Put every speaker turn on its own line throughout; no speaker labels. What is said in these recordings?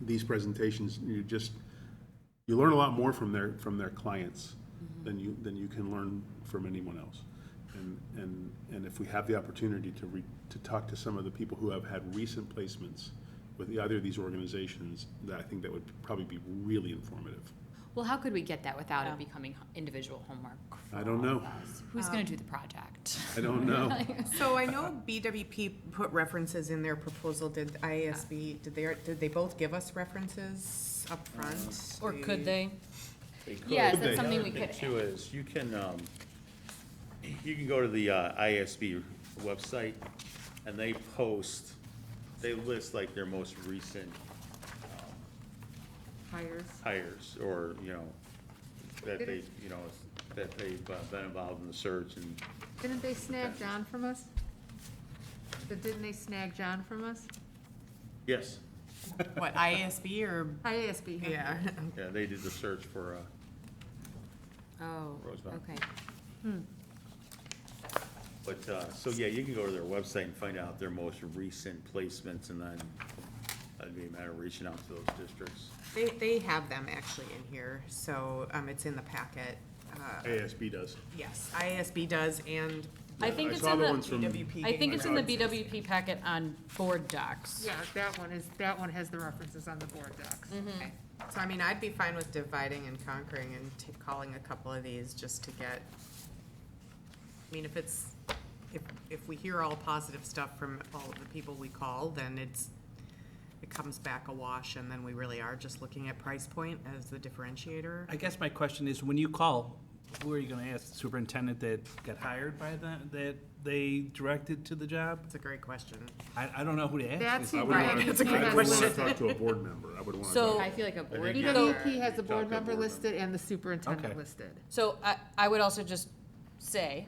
these presentations, you just, you learn a lot more from their, from their clients
Mm-hmm.
than you, than you can learn from anyone else. And, and, and if we have the opportunity to re, to talk to some of the people who have had recent placements with either of these organizations, that I think that would probably be really informative.
Well, how could we get that without it becoming h- individual homework? for
I don't
all of
know.
us? Who's
Um,
going to do the project?
I don't know.
So I know BWP put references in their proposal, did IASB, did they, did they both give us references up front?
Or could they?
Yeah, is
Could they?
that something we
The other
could,
thing, Too is, you can, um, you can go to the uh, ISB website, and they post, they list like their most recent
Hires.
hires, or, you know, that they, you know, that they've uh, been involved in the search and,
Didn't they snag John from us? But Didn't they snag John from us?
yes,
What, IASB or,
IASB. huh?
yeah,
yeah, they did the search for, uh,
oh,
Rosemary.
okay.
but, uh, so, yeah, you can go to their website and find out their most recent placements, and then it'd be a matter of reaching out to those districts.
they, they have them actually in here, so, um, it's in the packet. Uh,
ASB does.
Yes, IASB does and
I think it's
saw
in
the ones
the,
from-
BWP.
I
gave
think
us
it's in the
references.
BWP packet on board docs.
Yeah, that one is, that one has the references on the board docs.
Okay. So I mean, I'd be fine with dividing and conquering and ta- calling a couple of these just to get, I mean, if it's, if, if we hear all positive stuff from all of the people we call, then it's, it comes back a wash and then we really are just looking at price point as the differentiator.
I guess my question is, when you call, who are you gonna ask? The Superintendent that got hired by that, that they directed to the job?
That's a great question.
I, I don't know who to ask.
That's
I
who
would
Brian.
wanna-
That's a great
I would
question.
want to talk to a board member. I would want to
So-
talk
I feel like a board
you-
member.
BWP E has the
Talk to
board
the
member
board member.
listed and the superintendent
Okay.
listed.
So I, I would also just say,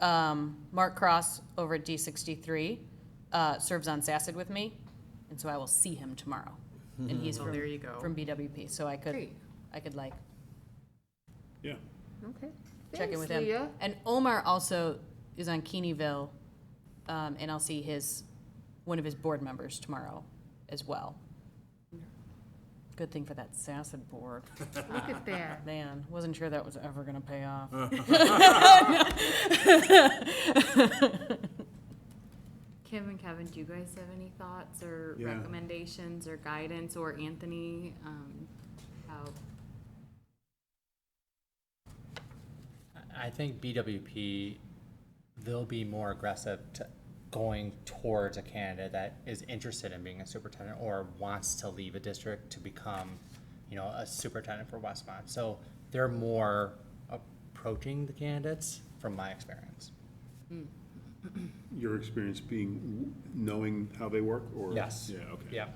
um, Mark Cross over at D sixty-three, uh, serves on SACID with me, and so I will see him tomorrow. And he's from,
Mm-hmm.
there you go.
from BWP, so I could,
Great.
I could like
Yeah,
Okay.
check in
Thanks,
with him.
Leah.
And Omar also is on Keeneyville, um, and I'll see his, one of his board members tomorrow as well. Good thing for that SACID board.
Look at that.
Man, wasn't sure that was ever gonna pay off.
Uh,
Kim and Kevin, do you guys have any thoughts or
Yeah.
recommendations or guidance or Anthony? Um, how,
I think BWP, they'll be more aggressive to going towards a candidate that is interested in being a superintendent or wants to leave a district to become, you know, a superintendent for Westmont. So they're more approaching the candidates from my experience.
your experience being, knowing how they work or?
Yes.
Yeah, okay.
Yeah.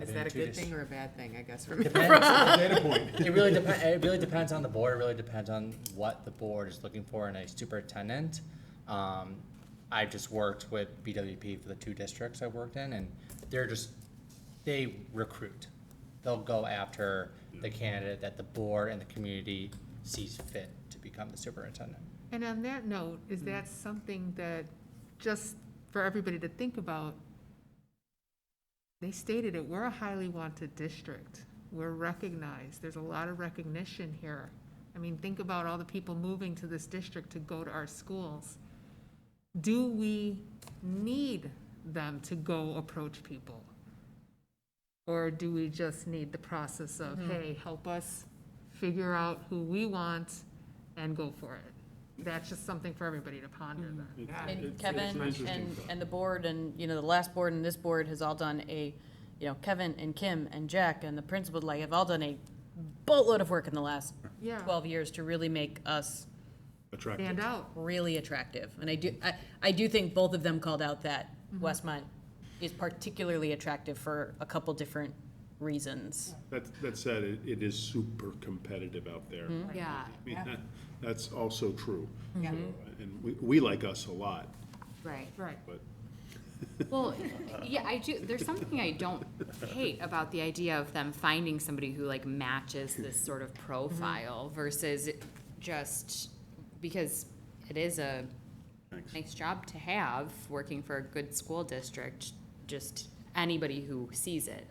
Is that a
I've been to
good
this-
thing or a bad thing, I guess, for me?
It really depends. It really depends on the board. It really depends on what the board is looking for in a superintendent. Um, I just worked with BWP for the two districts I worked in, and they're just they recruit. They'll go after the candidate that the board and the community sees fit to become the superintendent.
And on that note, is that something that, just for everybody to think about, they stated it, we're a highly wanted district. We're recognized. There's a lot of recognition here. I mean, think about all the people moving to this district to go to our schools. Do we need them to go approach people? Or do we just need the process of, hey, help us figure out who we want and go for it? That's just something for everybody to ponder then.
And
it's
Kevin
an interesting
and,
thought.
and the board and, you know, the last board and this board has all done a, you know, Kevin and Kim and Jack and the principal, like, have all done a boatload of work in the last
Yeah.
twelve years to really make us
Attractive.
Stand out.
really attractive. And I do, I, I do think both of them called out that Westmont is particularly attractive for a couple different reasons.
That, that said, it, it is super competitive out there.
Mm-hmm.
yeah,
I mean, that, that's also true. So, And we, we like us a lot,
right.
Right.
but
Well, yeah, I do, there's something I don't hate about the idea of them finding somebody who like matches this sort of profile versus it just, because it is a
Thanks.
nice job to have, working for a good school district, just anybody who sees it